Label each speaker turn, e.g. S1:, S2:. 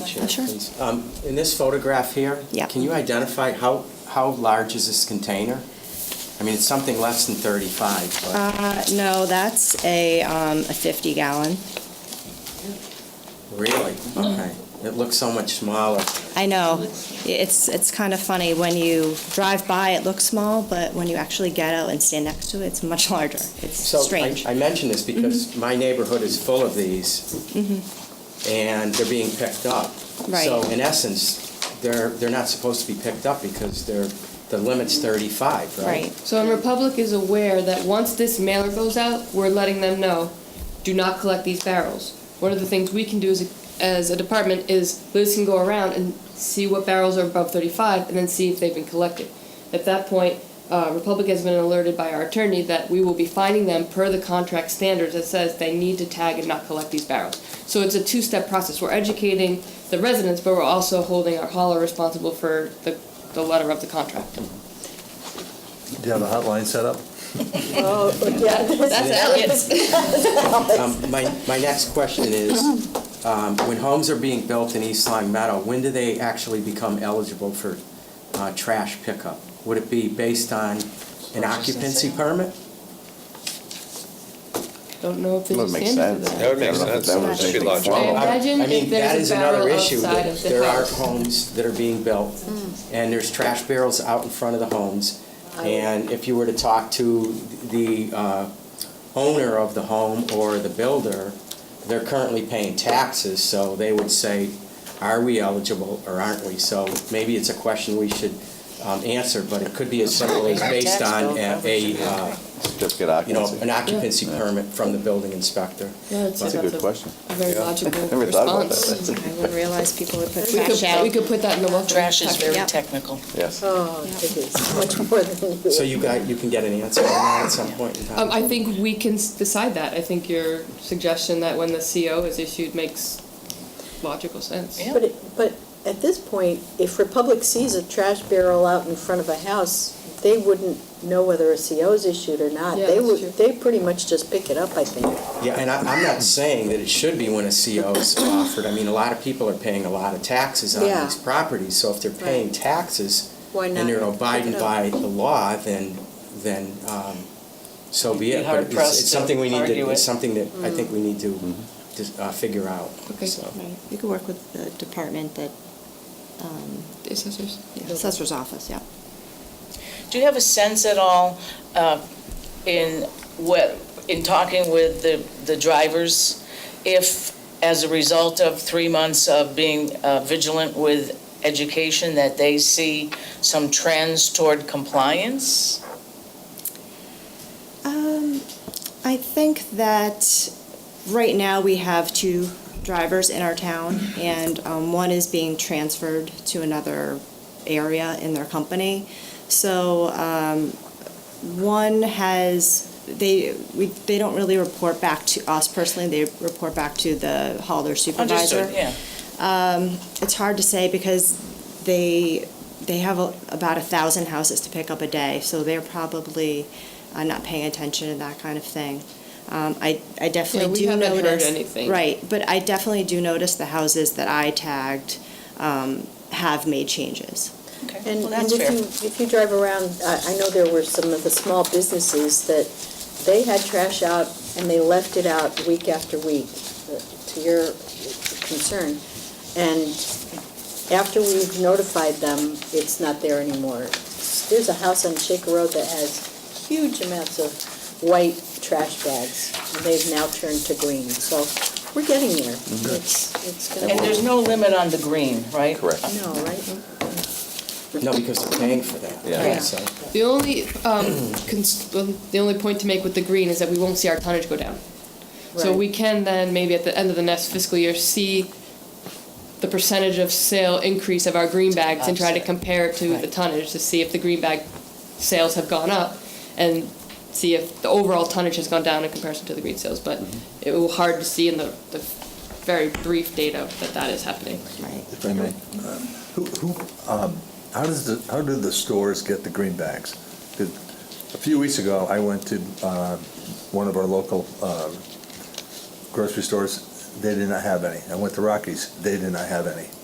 S1: Chair,
S2: Sure.
S1: please? Um, In this photograph here?
S2: Yeah.
S1: Can you identify how, how large is this container? I mean, it's something less than 35, but
S2: Uh, no, that's a, um, a fifty gallon.
S1: really?
S2: mm-hmm.
S1: Okay. It looks so much smaller.
S2: I know, it's, it's kind of funny, when you drive by, it looks small, but when you actually get out and stand next to it, it's much larger. It's
S1: So I-
S2: strange. Mm-hmm.
S1: I mention this because my neighborhood is full of these, and they're being picked up.
S2: Right.
S1: So in essence, they're, they're not supposed to be picked up because they're, the limit's 35, right?
S2: Right,
S3: So, and Republic is aware that once this mailer goes out, we're letting them know, do not collect these barrels. One of the things we can do as a, as a department is Liz can go around and see what barrels are above 35 and then see if they've been collected. At that point, uh, Republic has been alerted by our attorney that we will be finding them per the contract standards that says they need to tag and not collect these barrels. So it's a two-step process. We're educating the residents, but we're also holding our hauler responsible for the, the letter of the contract.
S4: Do you have a hotline set up?
S3: That's Elliot's.
S1: Um, My, my next question is, um, when homes are being built in East Long Meadow, when do they actually become eligible for uh, trash pickup? Would it be based on an occupancy permit?
S3: Don't know if there's a
S5: Would make
S3: standard
S5: sense.
S6: That would
S3: for that.
S6: make
S5: I don't know if
S6: sense.
S5: that
S6: That
S5: was
S6: should be
S5: anything
S6: logical.
S5: formal.
S1: I-
S3: Imagine
S1: I mean,
S3: if there's
S1: that
S3: a
S1: is another
S3: barrel
S1: issue.
S3: outside
S1: that
S3: of the
S1: There are
S3: house. Hmm.
S1: homes that are being built, and there's trash barrels out in front of the homes. And if you were to talk to the uh, owner of the home or the builder, they're currently paying taxes, so they would say, are we eligible or aren't we? So maybe it's a question we should um, answer, but it could be as simple as based on a, a, uh,
S5: Certificate
S1: you know,
S5: occupancy.
S1: an occupancy permit from the building inspector.
S3: Yeah, I'd say
S5: That's a good question.
S3: A very logical
S5: Never thought about
S3: response.
S5: that.
S2: I wouldn't realize people would put
S3: We
S2: trash
S3: could, we
S2: out.
S3: could put that in the Um, welcome.
S7: Trash is very
S2: Yep.
S7: technical.
S5: Yes.
S8: Oh, it is much more than you.
S1: So you got, you can get an answer on that at some point in time?
S3: Um, I think we can s- decide that. I think your suggestion that when the CO is issued makes logical sense.
S7: Yeah.
S8: But, it- but at this point, if Republic sees a trash barrel out in front of a house, they wouldn't know whether a CO is issued or not.
S3: Yeah,
S8: They
S3: that's
S8: would,
S3: true.
S8: they pretty much just pick it up, I think.
S1: Yeah, and I, I'm not saying that it should be when a CO is offered. I mean, a lot of people are paying a lot of taxes on
S8: Yeah.
S1: these properties, so if they're paying
S8: Right.
S1: taxes
S8: Why not?
S1: and they're abiding
S8: pick it
S1: by
S8: up?
S1: the law, then, then, um, so be
S7: You'd be
S1: it. But it's,
S7: hard-pressed
S1: it's something we
S7: to
S1: need
S7: argue
S1: to, it's
S7: it.
S1: something that I
S8: Mm-hmm.
S1: think we need to, dis- uh, figure out,
S3: Okay.
S1: so.
S2: Right. You could work with the department that, um,
S3: The assessors.
S2: assessor's office, yeah.
S7: Do you have a sense at all uh, in what, in talking with the the drivers, if as a result of three months of being uh, vigilant with education, that they see some trends toward compliance?
S2: Um, I think that right now we have two drivers in our town, and um, one is being transferred to another area in their company. So um, one has, they, we, they don't really report back to us personally, they report back to the hauler supervisor. Um,
S7: Understood, yeah.
S2: It's hard to say because they, they have a- about a thousand houses to pick up a day, so they're probably uh, not paying attention to that kind of thing. Um, I, I
S3: Yeah,
S2: definitely
S3: we
S2: do
S3: haven't
S2: notice.
S3: heard anything.
S2: Right, but I definitely do notice the houses that I tagged um, have made changes.
S7: Okay,
S8: And
S7: well,
S8: and
S7: that's
S8: if
S7: fair.
S8: you, if you drive around, I, I know there were some of the small businesses that they had trash out and they left it out week after week, uh, to your concern. And after we've notified them, it's not there anymore. There's a house on Shaker Road that has huge amounts of white trash bags. and They've now turned to green, so we're getting there. It's, it's gonna.
S7: And there's no limit on the green, right?
S5: Correct.
S8: No, right?
S1: No, because they're paying for that.
S5: Yeah.
S1: right, so.
S3: The only, um, cons- um, the only point to make with the green is that we won't see our tonnage go down. So
S8: Right.
S3: we can then, maybe at the end of the next fiscal year, see the percentage of sale increase of our green bags and try to
S7: Offset.
S3: compare it to the
S7: Right.
S3: tonnage to see if the green bag sales have gone up and see if the overall tonnage has gone down in comparison to the green sales. But
S7: Mm-hmm.
S3: it will hard to see in the, the very brief data that that is happening.
S2: Right.
S4: If I may. Who, who, um, how does the, how do the stores get the green bags? 'Cause A few weeks ago, I went to, uh, one of our local, uh, grocery stores. They did not have any. I went to Rockies. They did not have any.